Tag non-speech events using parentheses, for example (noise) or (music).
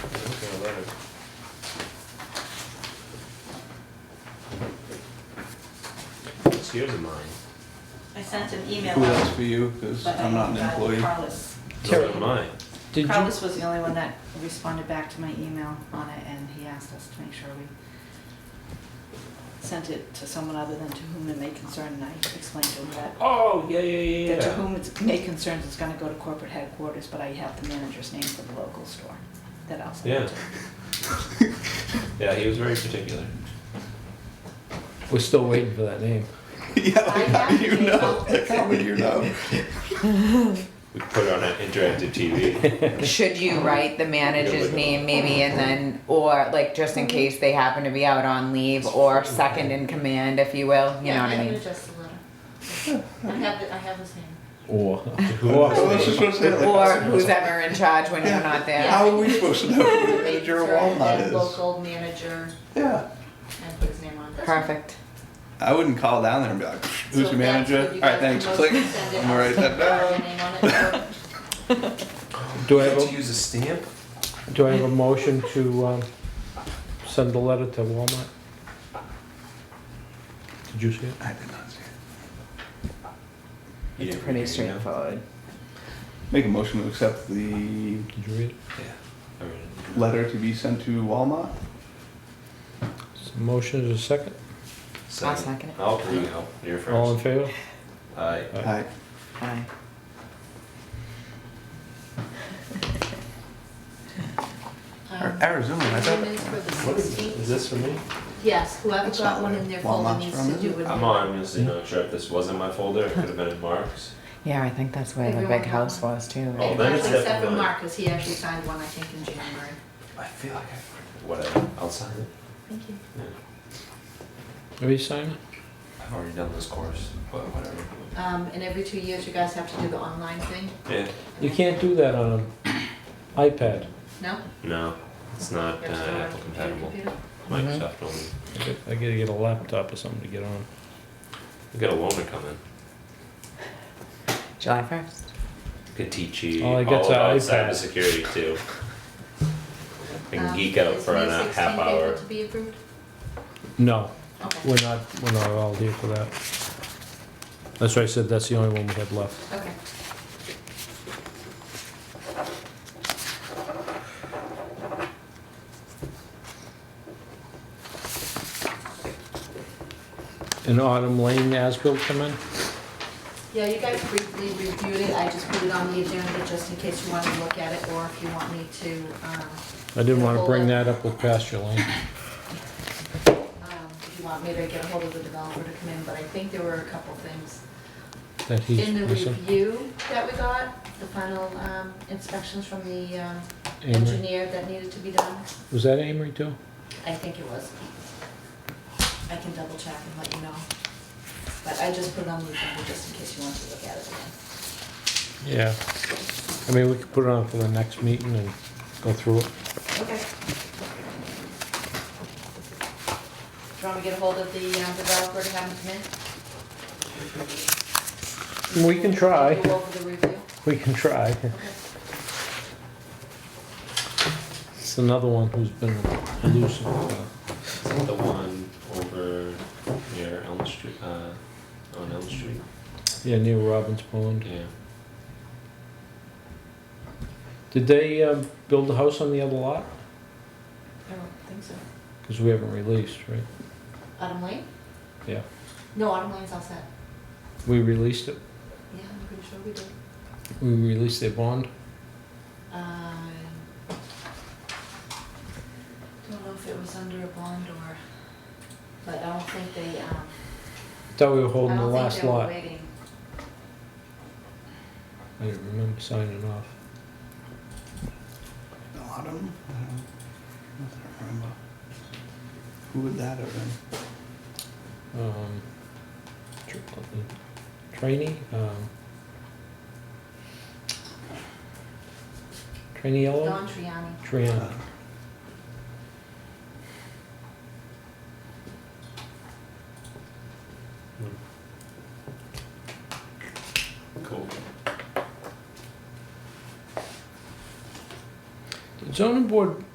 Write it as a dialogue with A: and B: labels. A: letter.
B: It's yours and mine.
C: I sent an email.
D: Who
C: out,
D: that's for you, because
C: but I
D: I'm not an
C: got
D: employee.
C: Carlos.
B: Yours and mine.
E: Did you,
C: Carlos was the only one that responded back to my email on it, and he asked us to make sure we sent it to someone other than to whom it may concern, and I explained to him that,
B: Oh, yeah, yeah,
C: that to whom it may concern is gonna go to corporate headquarters, but I have the manager's name for the local store that I'll send
B: Yeah.
C: it to.
B: Yeah, he was very particular.
E: we're still waiting for that name.
D: (laughs) Yeah,
C: I
D: like, how
C: have
D: do you
C: to
D: know?
C: take
D: Like, how would you know?
B: We put it on an interactive TV.
E: (laughs)
F: Should you write the manager's name maybe and then, or like just in case they happen to be out on leave or second in command, if you will, you know what I
G: Yeah, I
F: mean?
G: can adjust the letter. I have, the- I have his name.
E: Or,
D: (laughs) I was just
E: or
D: gonna say, like,
F: Or who's ever in charge when you're not there.
D: how are we supposed to know who the manager of
G: Sure, and
D: Walmart
G: then
D: is?
G: Local manager,
D: Yeah,
G: and put his name on. That's
F: Perfect.
D: I wouldn't call down there and be like,
G: So
D: who's your
G: that's
D: manager?
G: what
D: All
G: you
D: right,
G: guys
D: thanks,
G: can
D: click.
G: mostly send it.
D: I'm gonna write that
G: I'll
D: down.
G: put my name on it.
E: do I have a,
B: use a stamp?
E: do I have a motion to, um, send the letter to Walmart? Did you see it?
D: I did not see it.
F: It's pretty straightforward.
D: Make a motion to accept the
E: Did you read it?
D: letter to be sent to Walmart.
E: So Motion is a second.
F: I'll second it.
B: I'll bring it up. You're
E: All in
B: first.
E: favor?
B: Aye.
D: I,
F: Aye.
G: Um,
D: Arizona, I thought.
G: Minutes for the
B: What is,
G: 16th.
B: is this for me?
G: Yes, whoever
D: That's
G: got
D: not
G: one
D: where
G: in their
D: Walmart's
G: folder needs
D: from,
G: to
D: is
G: do it.
B: I'm honestly not sure if this was in my folder. It could have been in Mark's.
F: Yeah, I think that's where the
G: Everyone
F: big house was too.
B: Oh,
F: right?
B: then it's
G: Except for
B: definitely-
G: Mark, because he actually signed one, I think, in January.
B: I feel like I. Whatever. I'll sign it.
G: Thank you.
E: Have you signed it?
B: I've already done this course, but whatever.
G: Um, and every two years, you guys have to do the online thing?
B: Yeah.
E: You can't do that on an iPad.
G: No?
B: No, it's not
G: You
B: uh,
G: have to do it on
B: Apple
G: your
B: compatible.
G: computer?
E: Mm-hmm.
B: Microsoft only.
E: I got- I gotta get a laptop or something to get on.
B: We got a loaner coming.
F: July first.
B: Could teach you
E: All
B: all
E: Oh, I got's an
B: about
E: iPad.
B: cybersecurity
E: (laughs)
B: too. I can
G: Um,
B: geek out
G: is
B: for
G: May
B: an a
G: 16th
B: half
G: able
B: hour.
G: to be approved?
E: No,
G: Okay,
E: we're not, we're not all here for that. That's why I said that's the only one we had left.
G: okay.
E: And Autumn Lane as-built come in?
G: Yeah, you guys briefly reviewed it, I just put it on the agenda just in case you want to look at it, or if you want me to, um,
E: I didn't wanna bring that up with pasture lane.
G: um, if you want me to get a hold of the developer to come in, but I think there were a couple things.
E: That he's
G: In the
E: missing.
G: review that we got, the final um, inspections from the um,
E: Amory.
G: engineer that needed to be done,
E: Was that Amory too?
G: I think it was. I can double check and let you know. But I just put it on the agenda just in case you want to look at it again.
E: Yeah. I mean, we could put it on for the next meeting and go through it.
G: Okay. Do you want me to get a hold of the um, developer to have him come in?
E: We can try,
G: Go over the review?
E: we can try. It's another one who's been elusive.
B: Is that the one over near Elm Street? Uh, on Elm Street?
E: Yeah, near Robbins Pond.
B: Yeah.
E: Did they, um, build a house on the other lot?
G: I don't think so.
E: Cause we haven't released, right?
G: Autumn Lane?
E: Yeah.
G: No, Autumn Lane's all set.
E: We released it,
G: Yeah, I'm pretty sure we did.
E: we released their bond.
G: Um, Don't know if it was under a bond or, but I don't think they, um,
E: Thought we were
G: I
E: holding the
G: don't think
E: last
G: they were
E: lot.
G: waiting.
E: I didn't remember signing off.
D: Autumn? I don't know. I don't remember. Who would that have been?
E: um, tr- um, trainee, um, trainee yellow,
G: Don Triani.
D: Uh,
E: Triana.
B: Cool.
E: Did zoning board